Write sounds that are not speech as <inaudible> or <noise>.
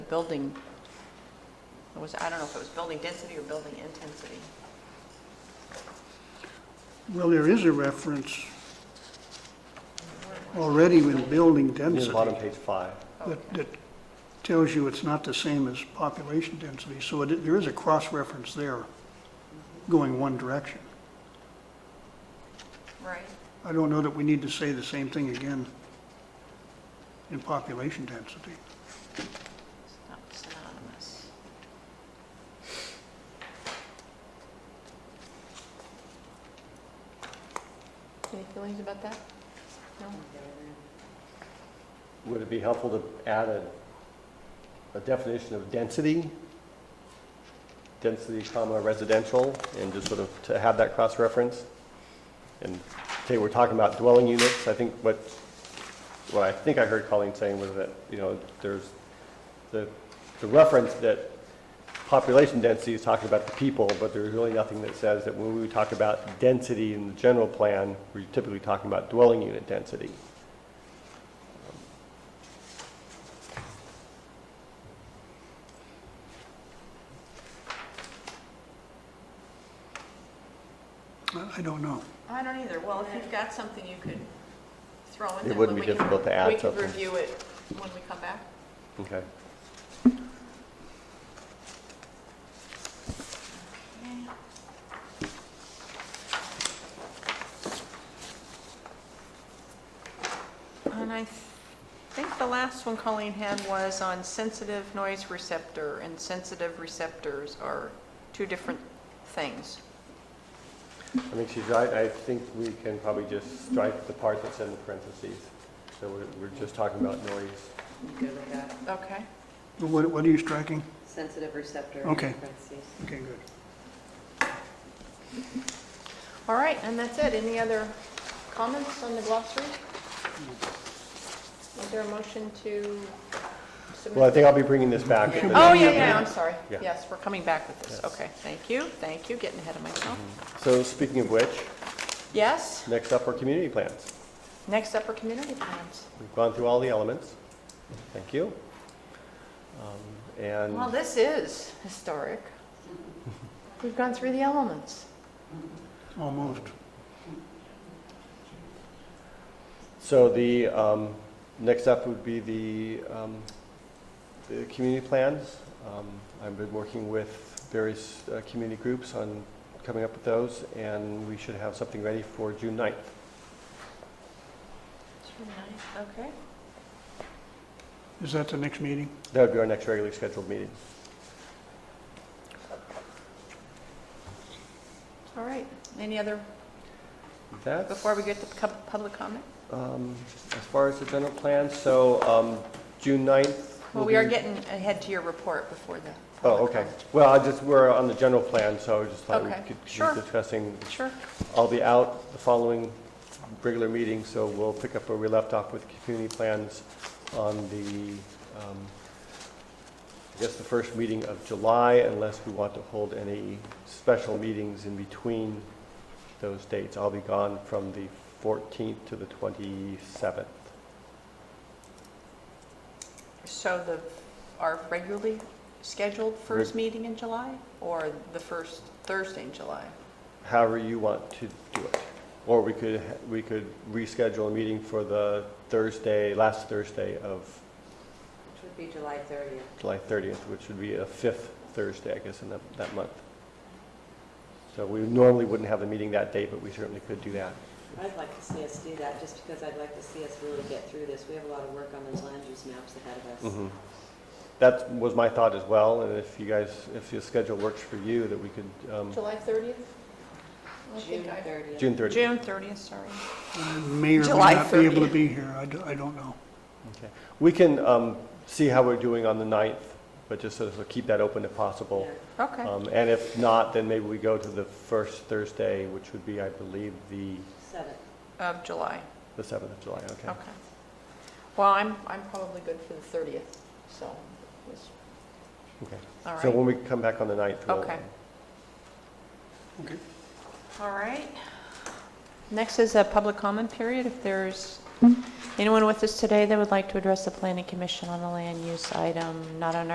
building, it was, I don't know if it was building density or building intensity. Well, there is a reference already in building Near the bottom, density page five. that, that tells you it's not the same as population density, so it, there is a cross-reference there going one direction. Right. I don't know that we need to say the same thing again in population density. It's not synonymous. Any feelings about that? No? Would it be helpful to add a, a definition of density? Density comma residential, and just sort of to have that cross-reference? And today we're talking about dwelling units, I think what, what I think I heard Colleen saying was that, you know, there's the, the reference that population density is talking about the people, but there's really nothing that says that when we talk about density in the general plan, we're typically talking about dwelling unit density. I, I don't know. I don't either. Well, if you've got something you could throw in It there. wouldn't but we be can- difficult to add We something. could review it when we come back. Okay. And I think the last one Colleen had was on sensitive noise receptor, and sensitive receptors are two different things. I think she's right. I think we can probably just strike the part that's in the parentheses. So we're, we're just talking about noise. You good with that? Okay. But What, what are you striking? Sensitive receptor. Okay. parentheses. Okay, good. All right, and that's it. Any other comments on the glossary? Is there a motion to submit? Well, I think I'll be bringing this back. at <laughs> the Oh, next yeah, meeting. yeah, I'm sorry. Yeah. Yes, we're coming back with this. Yes. Okay, thank you, thank you, getting ahead of myself. Mm-hmm. So speaking of which, Yes, next up are community plans. next up are community plans. We've gone through all the elements. Thank you. Um, And Well, this is historic. We've gone through the elements. Almost. so the, um, next up would be the, um, the community plans. Um, I've been working with various uh, community groups on coming up with those, and we should have something ready for June 9th. Okay. Is that the next meeting? That would be our next regularly scheduled meeting. All right, any other, That's, before we get to pub- public comment? um, as far as the general plan, so, um, June 9th. Well, will we are be- getting ahead to your report before the. Oh, public okay. comment. Well, I just, we're on the general plan, so I just thought we Okay, could sure. be discussing. Sure. I'll be out the following regular meeting, so we'll pick up where we left off with community plans on the, um, I guess, the first meeting of July, unless we want to hold any special meetings in between those dates. I'll be gone from the 14th to the 27th. So the, our regularly scheduled first Reg- meeting in July or the first Thursday in July? however you want to do it. Or we could, we could reschedule a meeting for the Thursday, last Thursday of Which would be July 30th. July 30th, which would be a fifth Thursday, I guess, in that, that month. So we normally wouldn't have the meeting that day, but we certainly could do that. I'd like to see us do that, just because I'd like to see us really get through this. We have a lot of work on those land use maps ahead of Mm-hmm. us. That was my thought as well, and if you guys, if your schedule works for you, that we could, um, July 30th? June 30th. June 30th. June 30th, sorry. I may or may July not be able 30th. to be here. I, do- I don't know. Okay. We can um, see how we're doing on the 9th, but just sort of keep that open if possible. Yeah. Okay. Um, And if not, then maybe we go to the first Thursday, which would be, I believe, the, Seventh. Of July, the 7th of July, okay? okay. Well, I'm, I'm probably good for the 30th, so, it's- Okay. all So right, when we come back on the 9th, we'll... Okay. Okay. all right. Next is a public comment period. If there's anyone with us today that would like to address the planning commission on a land use item not on our